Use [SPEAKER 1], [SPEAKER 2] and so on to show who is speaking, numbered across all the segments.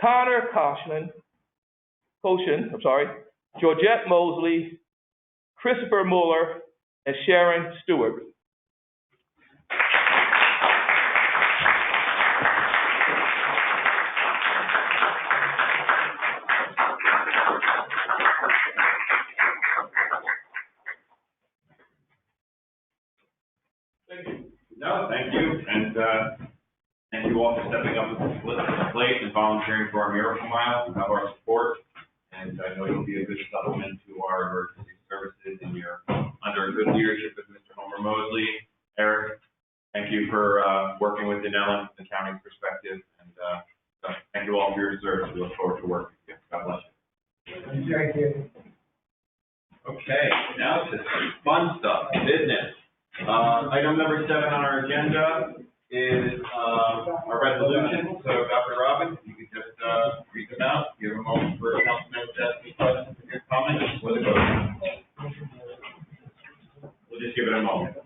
[SPEAKER 1] Connor Koshin, Koshin, I'm sorry, Georgette Mosley, Christopher Mueller, and Sharon Stewart.
[SPEAKER 2] Thank you. No, thank you, and, uh, thank you all for stepping up to the plate and volunteering for our miracle mile, and have our support. And I know you'll be a good supplement to our emergency services, and you're under good leadership of Mr. Homer Mosley. Eric, thank you for, uh, working with Danella from the county's perspective, and, uh, so thank you all for your service, we look forward to working with you. God bless
[SPEAKER 3] Thank you.
[SPEAKER 2] you. Okay, now to some fun stuff, business. Uh, item number seven on our agenda is, uh, our resolution, so Dr. Robbins, you could just, uh, read them out, give a moment for councilmen to ask any questions, or comments, or the vote. We'll just give it a moment.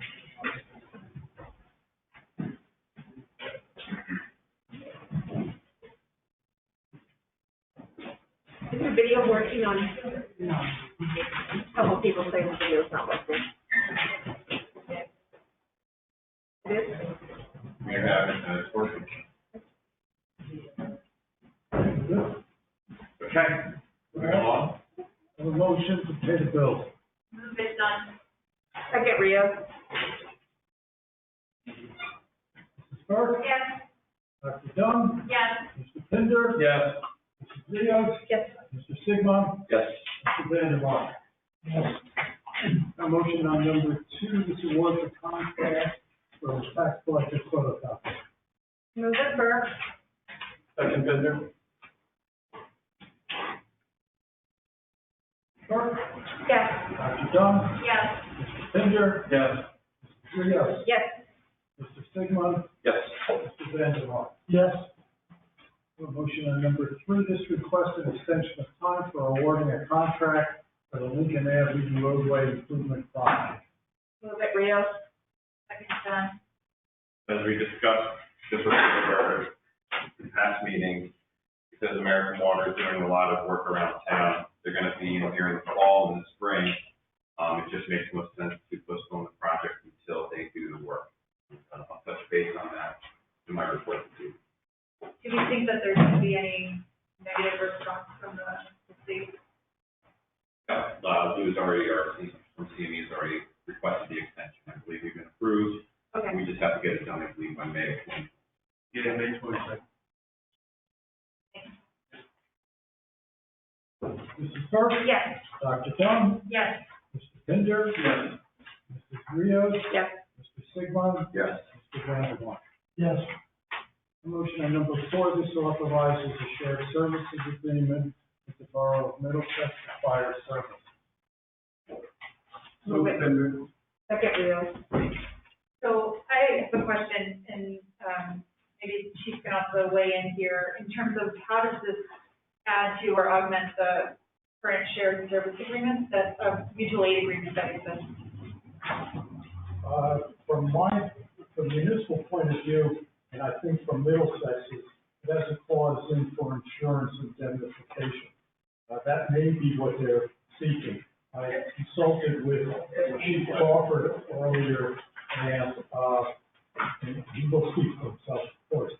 [SPEAKER 4] Is your video working on? No. Couple people say the video's not working. It is?
[SPEAKER 2] We have, it, uh, it's working. Okay, moving along.
[SPEAKER 3] A motion to pay the bill.
[SPEAKER 4] Movement done. Second, Rio.
[SPEAKER 3] Ms. Burke,
[SPEAKER 4] Yes.
[SPEAKER 3] Dr. Dunn,
[SPEAKER 4] Yes.
[SPEAKER 3] Mr. Pinder,
[SPEAKER 2] Yes.
[SPEAKER 3] Mrs. Rios,
[SPEAKER 4] Yes.
[SPEAKER 3] Mr. Sigmund,
[SPEAKER 2] Yes.
[SPEAKER 3] Mr. Vandermark. A motion on number two, this award for contract for tax collector photocopy.
[SPEAKER 4] Movement Burke.
[SPEAKER 2] Second, Bender?
[SPEAKER 3] Burke,
[SPEAKER 4] Yes.
[SPEAKER 3] Dr. Dunn,
[SPEAKER 4] Yes.
[SPEAKER 3] Mr. Pinder,
[SPEAKER 2] Yes.
[SPEAKER 3] Mrs. Rios,
[SPEAKER 4] Yes.
[SPEAKER 3] Mr. Sigmund,
[SPEAKER 2] Yes.
[SPEAKER 3] Mr. Vandermark. Yes. A motion on number three, this request an extension of time for awarding a contract for the Lincoln Avenue roadway improvement project.
[SPEAKER 4] Movement Rio. Second, done.
[SPEAKER 2] as we discussed, this was our past meeting, because American Water is doing a lot of work around town. They're gonna be in here in the fall and the spring. Um, it just makes most sense to postpone the project until they do the work. Uh, I'll touch base on that in my report to you.
[SPEAKER 5] Do we think that there's gonna be any negative response from the, the state?
[SPEAKER 2] Yeah, Uh, Lou's already, our, C- from CME has already requested the extension. I believe we've been approved.
[SPEAKER 5] Okay.
[SPEAKER 2] We just have to get it done, I believe, by May.
[SPEAKER 6] Yeah, May twenty-second.
[SPEAKER 3] Mrs. Burke,
[SPEAKER 4] Yes.
[SPEAKER 3] Dr. Dunn,
[SPEAKER 5] Yes.
[SPEAKER 3] Mr. Pinder,
[SPEAKER 6] Yes.
[SPEAKER 3] Mrs. Rios,
[SPEAKER 4] Yes.
[SPEAKER 3] Mr. Sigmund,
[SPEAKER 2] Yes.
[SPEAKER 3] Mr. Vandermark. Yes. Motion on number four, this authorizes a shared services agreement with the Borough of Middlesex for fire service.
[SPEAKER 4] Movement. Second, Rio.
[SPEAKER 5] So I have a question, and, um, maybe the Chief can also weigh in here, in terms of how does this add to or augment the current shared service agreement, that, uh, mutual aid agreement that exists?
[SPEAKER 3] Uh, from my, from municipal point of view, and I think from Middlesex's, it has a clause in for insurance indemnification. Uh, that may be what they're seeking. I consulted with Chief Crawford earlier, and, uh, and he will speak for himself, of course.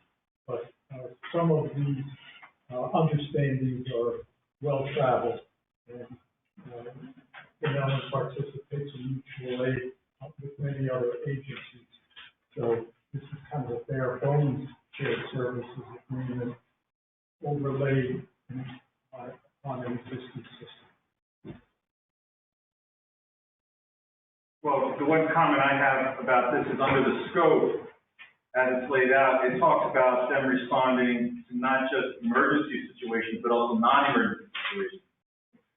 [SPEAKER 3] But, uh, some of these, uh, understandings are well-traveled, and, uh, and Ellen participates in mutual aid with many other agencies. So this is kind of a bare bones shared services agreement overlaid on on an existing system.
[SPEAKER 6] Well, the one comment I have about this is under the scope, as it's laid out, it talks about them responding to not just emergency situations, but also non-emergency situations.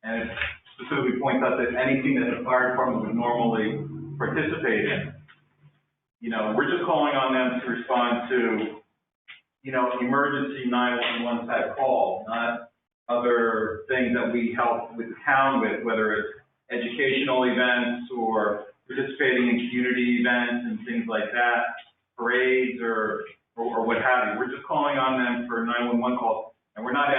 [SPEAKER 6] And it specifically points out that anything that the fire department would normally participate in. You know, we're just calling on them to respond to, you know, emergency nine-one-one type call, not other things that we help with the town with, whether it's educational events or participating in community events and things like that, parades or, or or what have you. We're just calling on them for 911 calls.
[SPEAKER 2] And we're not